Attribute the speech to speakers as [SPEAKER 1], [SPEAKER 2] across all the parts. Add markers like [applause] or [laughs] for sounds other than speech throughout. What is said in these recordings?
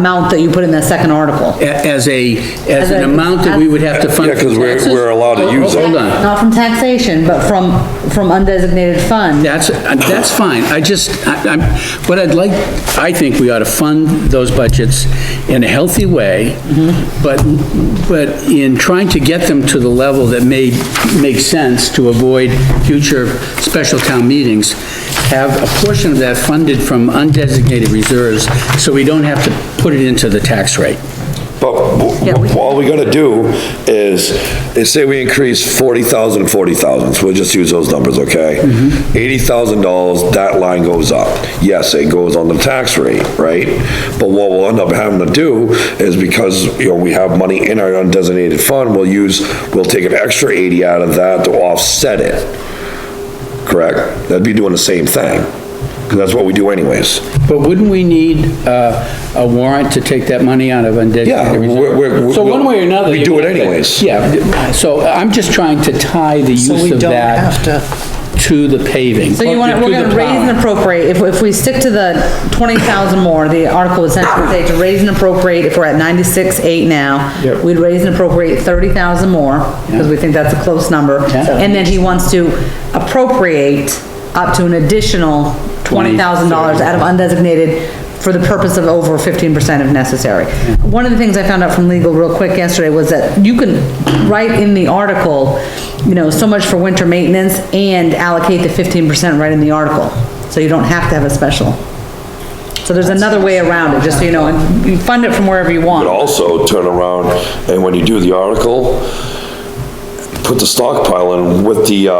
[SPEAKER 1] amount that you put in the second article.
[SPEAKER 2] a- as a, as an
[SPEAKER 1] a-
[SPEAKER 2] amount that we would have to fund.
[SPEAKER 3] Yeah, 'cause we're-
[SPEAKER 2] taxes?
[SPEAKER 3] we're allowed to
[SPEAKER 2] Hold-
[SPEAKER 3] use it.
[SPEAKER 2] Hold on,
[SPEAKER 1] Not from taxation, but from, from undesignated fund.
[SPEAKER 2] that's, uh, that's fine, I just, I- I'm, what I'd like, I think we ought to fund those budgets in a healthy way, but, but in trying to get them to the level that may make sense to avoid future special town meetings, have a portion of that funded from undesignated reserves, so we don't have to put it into the tax rate.
[SPEAKER 3] But wh- all we gotta do is, is say we increase 40,000 and 40,000, so we'll just use those numbers, okay? $80,000, that line goes up. Yes, it goes on the tax rate, right? But what we'll end up having to do is because, you know, we have money in our undesignated fund, we'll use, we'll take an extra 80 out of that to offset it. Correct? That'd be doing the same thing, 'cause that's what we do anyways.
[SPEAKER 2] But wouldn't we need uh, a warrant to take that money out of
[SPEAKER 3] Yeah,
[SPEAKER 2] undesignated
[SPEAKER 3] we're-
[SPEAKER 2] reserve?
[SPEAKER 3] we're-
[SPEAKER 2] So one way or another.
[SPEAKER 3] we
[SPEAKER 2] you're
[SPEAKER 3] do it
[SPEAKER 2] gonna have to-
[SPEAKER 3] anyways.
[SPEAKER 2] Yeah, so I'm just trying to tie the
[SPEAKER 4] So
[SPEAKER 2] use
[SPEAKER 4] we
[SPEAKER 2] of
[SPEAKER 4] don't
[SPEAKER 2] that
[SPEAKER 4] have to,
[SPEAKER 2] to the paving.
[SPEAKER 1] So you want,
[SPEAKER 2] to
[SPEAKER 1] we're
[SPEAKER 2] the
[SPEAKER 1] gonna raise
[SPEAKER 2] plowing.
[SPEAKER 1] and appropriate, if, if we stick to the twenty thousand more, the article would essentially say to raise and appropriate, if we're at ninety-six, eight now,
[SPEAKER 2] Yep.
[SPEAKER 1] we'd raise and appropriate thirty thousand more, because we think that's a close number,
[SPEAKER 2] Yeah.
[SPEAKER 1] and then he wants to appropriate up to an additional twenty thousand dollars out of undesignated for the purpose of over fifteen percent if necessary. One of the things I found out from legal real quick yesterday was that you can write in the article, you know, so much for winter maintenance and allocate the fifteen percent right in the article. So you don't have to have a special. So there's another way around it, just so you know, and you fund it from wherever you
[SPEAKER 3] But
[SPEAKER 1] want.
[SPEAKER 3] also turn around, and when you do the article, put the stockpile in with the, uh,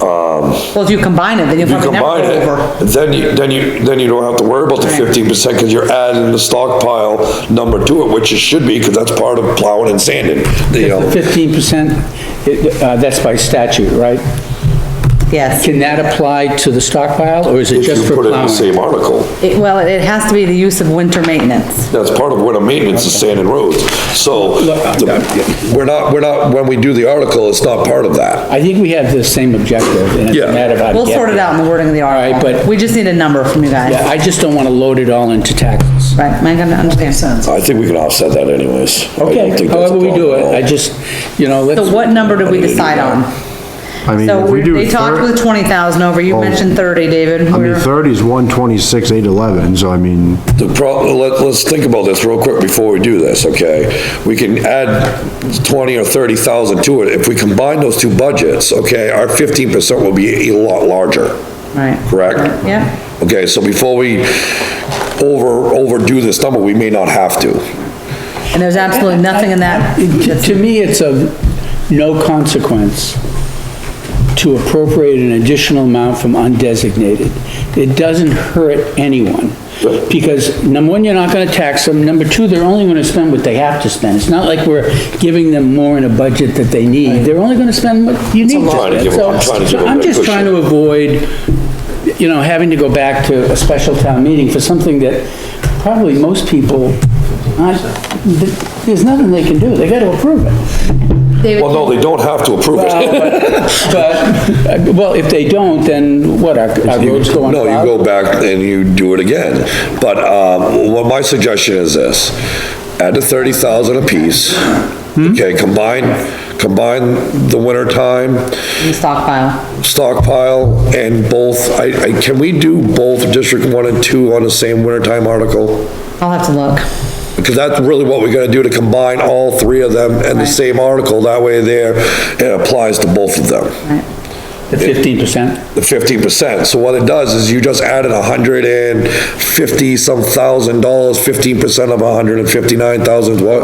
[SPEAKER 3] um,
[SPEAKER 1] Well, if you combine it, then you'll
[SPEAKER 3] you
[SPEAKER 1] probably never
[SPEAKER 3] combine
[SPEAKER 1] go over.
[SPEAKER 3] it, then you, then you, then you don't have to worry about the
[SPEAKER 1] Right.
[SPEAKER 3] fifteen percent, because you're adding the stockpile number to it, which it should be, because that's part of plowing and sanding, um, you know.
[SPEAKER 2] Fifteen percent, uh, that's by statute, right?
[SPEAKER 1] Yes.
[SPEAKER 2] Can that apply to the stockpile, or is it
[SPEAKER 3] If
[SPEAKER 2] just
[SPEAKER 3] you
[SPEAKER 2] for
[SPEAKER 3] put it in
[SPEAKER 2] plowing?
[SPEAKER 3] the same article,
[SPEAKER 1] It- Well, it has to be the use of winter maintenance.
[SPEAKER 3] that's part of what a maintenance is sanding roads, so, the- we're not, we're not, when we do the article, it's not part of that.
[SPEAKER 2] I think we have the same objective, and it's a
[SPEAKER 3] Yeah.
[SPEAKER 2] matter of how to
[SPEAKER 1] We'll
[SPEAKER 2] get
[SPEAKER 1] sort it
[SPEAKER 2] there.
[SPEAKER 1] out in the wording of the
[SPEAKER 2] right,
[SPEAKER 1] article.
[SPEAKER 2] but-
[SPEAKER 1] We just need a number from you guys.
[SPEAKER 2] Yeah, I just don't want to load it all into taxes.
[SPEAKER 1] Right, am I gonna understand?
[SPEAKER 4] sense.
[SPEAKER 3] I think we can offset that anyways. I don't
[SPEAKER 2] Okay,
[SPEAKER 3] think that's a
[SPEAKER 2] however we do
[SPEAKER 3] problem at
[SPEAKER 2] it,
[SPEAKER 3] all.
[SPEAKER 2] I just, you know, let's.
[SPEAKER 1] So what number did we decide on?
[SPEAKER 5] I mean,
[SPEAKER 1] So
[SPEAKER 5] if we
[SPEAKER 1] we-
[SPEAKER 5] do
[SPEAKER 1] they talked
[SPEAKER 5] thir- Oh.
[SPEAKER 1] with twenty thousand over, you mentioned thirty, David.
[SPEAKER 5] I mean,
[SPEAKER 1] We're-
[SPEAKER 5] thirty's one twenty-six, eight eleven, so I mean,
[SPEAKER 3] The problem, let, let's think about this real quick before we do this, okay? We can add twenty or thirty thousand to it. If we combine those two budgets, okay, our fifteen percent will be a lot larger,
[SPEAKER 1] Right.
[SPEAKER 3] correct?
[SPEAKER 1] Yep.
[SPEAKER 3] Okay, so before we over, overdo this number, we may not have to.
[SPEAKER 1] And there's absolutely nothing in that.
[SPEAKER 2] To to me, it's of no consequence to appropriate an additional amount from undesignated. It doesn't hurt anyone, because, number one, you're not gonna tax them, number two, they're only gonna spend what they have to spend. It's not like we're giving them more in a budget that they need, they're only gonna spend what you need to
[SPEAKER 3] lot.
[SPEAKER 2] spend.
[SPEAKER 3] I'm trying to
[SPEAKER 2] So-
[SPEAKER 3] give them- I'm trying to give
[SPEAKER 2] so
[SPEAKER 3] them
[SPEAKER 2] I'm
[SPEAKER 3] that
[SPEAKER 2] just
[SPEAKER 3] cushion.
[SPEAKER 2] trying to avoid, you know, having to go back to a special town meeting for something that probably most people aren't, th- there's nothing they can do, they gotta approve it.
[SPEAKER 1] David,
[SPEAKER 3] Well, no, they don't have to approve it.
[SPEAKER 2] But, [laughs] uh, well, if they don't, then what, our our roads go on
[SPEAKER 3] No, you
[SPEAKER 2] cloud?
[SPEAKER 3] go back and you do it again. But, um, what my suggestion is this, add the thirty thousand apiece. Okay, combine, combine the winter time,
[SPEAKER 1] you stockpile.
[SPEAKER 3] stockpile and both, I, I, can we do both District One and Two on the same wintertime article?
[SPEAKER 1] I'll have to look.
[SPEAKER 3] Because that's really what we're gonna do, to combine all three of them in the same article, that way there, it applies to both of them,
[SPEAKER 1] Right.
[SPEAKER 2] The fifteen percent?
[SPEAKER 3] the fifteen percent. So what it does is you just added a hundred and fifty some thousand dollars, fifteen percent of a hundred and fifty-nine thousand, what?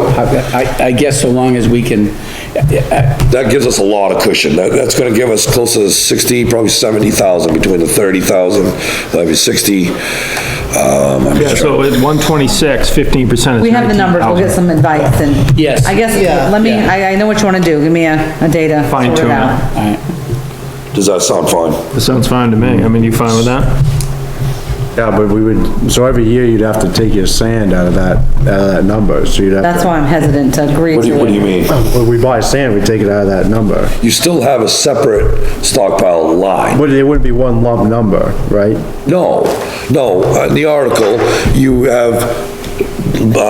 [SPEAKER 2] I, I guess so long as we can,
[SPEAKER 3] That gives us a lot of cushion, that, that's gonna give us close to sixty, probably seventy thousand, between the thirty thousand, that'd be sixty, um, I'm
[SPEAKER 6] Yeah, so at 126, 15% is
[SPEAKER 1] We have the numbers, we'll get
[SPEAKER 6] 19,000.
[SPEAKER 1] some advice and.
[SPEAKER 2] Yes.
[SPEAKER 1] I guess,
[SPEAKER 4] Yeah.
[SPEAKER 1] let me,
[SPEAKER 2] Yeah.
[SPEAKER 1] I, I know what you wanna do, give me a, a data. sort
[SPEAKER 6] Fine tune it.
[SPEAKER 1] out.
[SPEAKER 2] all right.
[SPEAKER 3] Does that sound fine?
[SPEAKER 6] That sounds fine to me. I mean, you fine with that?
[SPEAKER 5] yeah, but we would, so every year you'd have to take your sand out of that, out of that number, so you'd have.
[SPEAKER 1] That's why I'm hesitant to agree
[SPEAKER 3] What do you, what do
[SPEAKER 1] to
[SPEAKER 3] you
[SPEAKER 1] it.
[SPEAKER 3] mean?
[SPEAKER 5] When we buy sand, we take it out of that number,
[SPEAKER 3] You still have a separate stockpile line.
[SPEAKER 5] but it wouldn't be one lump number, right?
[SPEAKER 3] No, no, in the article, you have uh,